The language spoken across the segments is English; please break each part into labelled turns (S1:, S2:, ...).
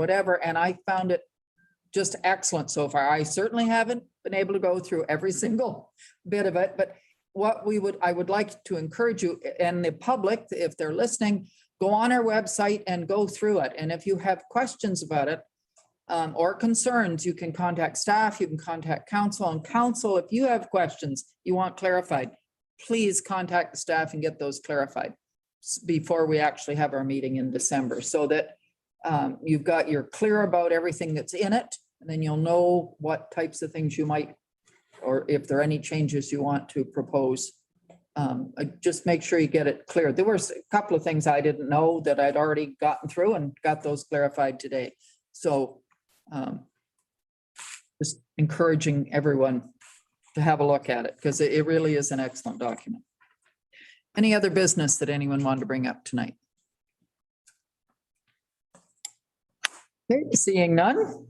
S1: whatever, and I found it just excellent so far. I certainly haven't been able to go through every single bit of it, but what we would, I would like to encourage you and the public, if they're listening, go on our website and go through it. And if you have questions about it um, or concerns, you can contact staff, you can contact council. And council, if you have questions you want clarified, please contact the staff and get those clarified s- before we actually have our meeting in December so that um, you've got, you're clear about everything that's in it, and then you'll know what types of things you might, or if there are any changes you want to propose. Um, uh, just make sure you get it clear. There were s- a couple of things I didn't know that I'd already gotten through and got those clarified today. So, um, just encouraging everyone to have a look at it, because it, it really is an excellent document. Any other business that anyone wanted to bring up tonight? Okay, seeing none.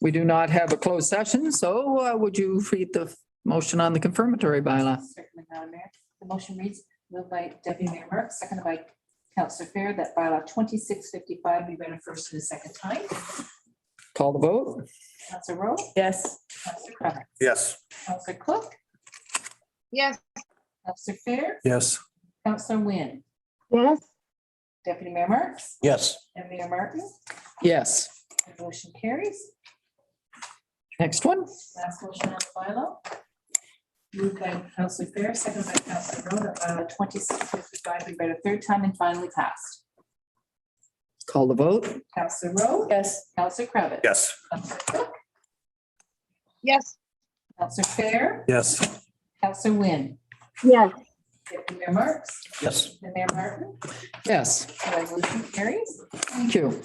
S1: We do not have a closed session, so uh, would you read the motion on the confirmatory bylaw?
S2: Certainly, Madam Mayor. The motion reads, moved by Deputy Mayor Marks, seconded by Councillor Fair, that bylaw twenty-six fifty-five be read a first and a second time.
S1: Call the vote?
S2: Councillor Rowe? Yes. Councillor Cravitz?
S3: Yes.
S2: Councillor Cook?
S4: Yes.
S2: Councillor Fair?
S3: Yes.
S2: Councillor Wynn?
S4: Yes.
S2: Deputy Mayor Marks?
S3: Yes.
S2: And Mayor Martin?
S1: Yes.
S2: The Motion carries.
S1: Next one?
S2: Last motion on the bylaw. Moved by Councillor Fair, seconded by Councillor Rowe, that bylaw twenty-six fifty-five be read a third time and finally passed.
S1: Call the vote?
S2: Councillor Rowe? Yes. Councillor Cravitz?
S3: Yes.
S2: Councillor Cook?
S4: Yes.
S2: Councillor Fair,
S3: Yes.
S2: Councillor Wynn,
S4: Yes.
S2: Deputy Mayor Marks,
S3: Yes.
S2: and Mayor Martin,
S1: Yes,
S2: the resolution carries.
S1: thank you.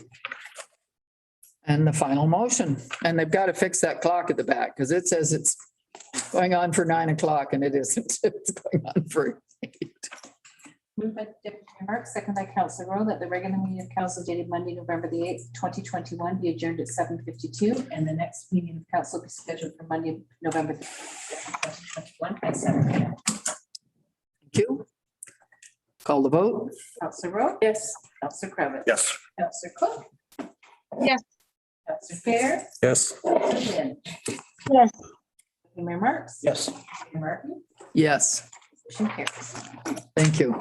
S1: And the final motion, and they've got to fix that clock at the back because it says it's going on for nine o'clock and it isn't. It's going on for eight.
S2: Moved by Deputy Mayor Marks, second by Councillor Rowe, that the regular meeting of council dated Monday, November the eighth, twenty twenty-one be adjourned at seven fifty-two, and the next meeting of council be scheduled for Monday, November the twenty twenty-one at seven P M.
S1: Thank you. Call the vote?
S2: Councillor Rowe? Yes. Councillor Kravitz,
S3: Yes.
S2: Councillor Cook?
S4: Yes.
S2: Councillor Fair,
S3: Yes.
S2: Councillor Wynn,
S4: Yes.
S2: Mayor Marks?
S3: Yes.
S2: Mayor Martin,
S1: Yes,
S2: motion carries.
S1: thank you.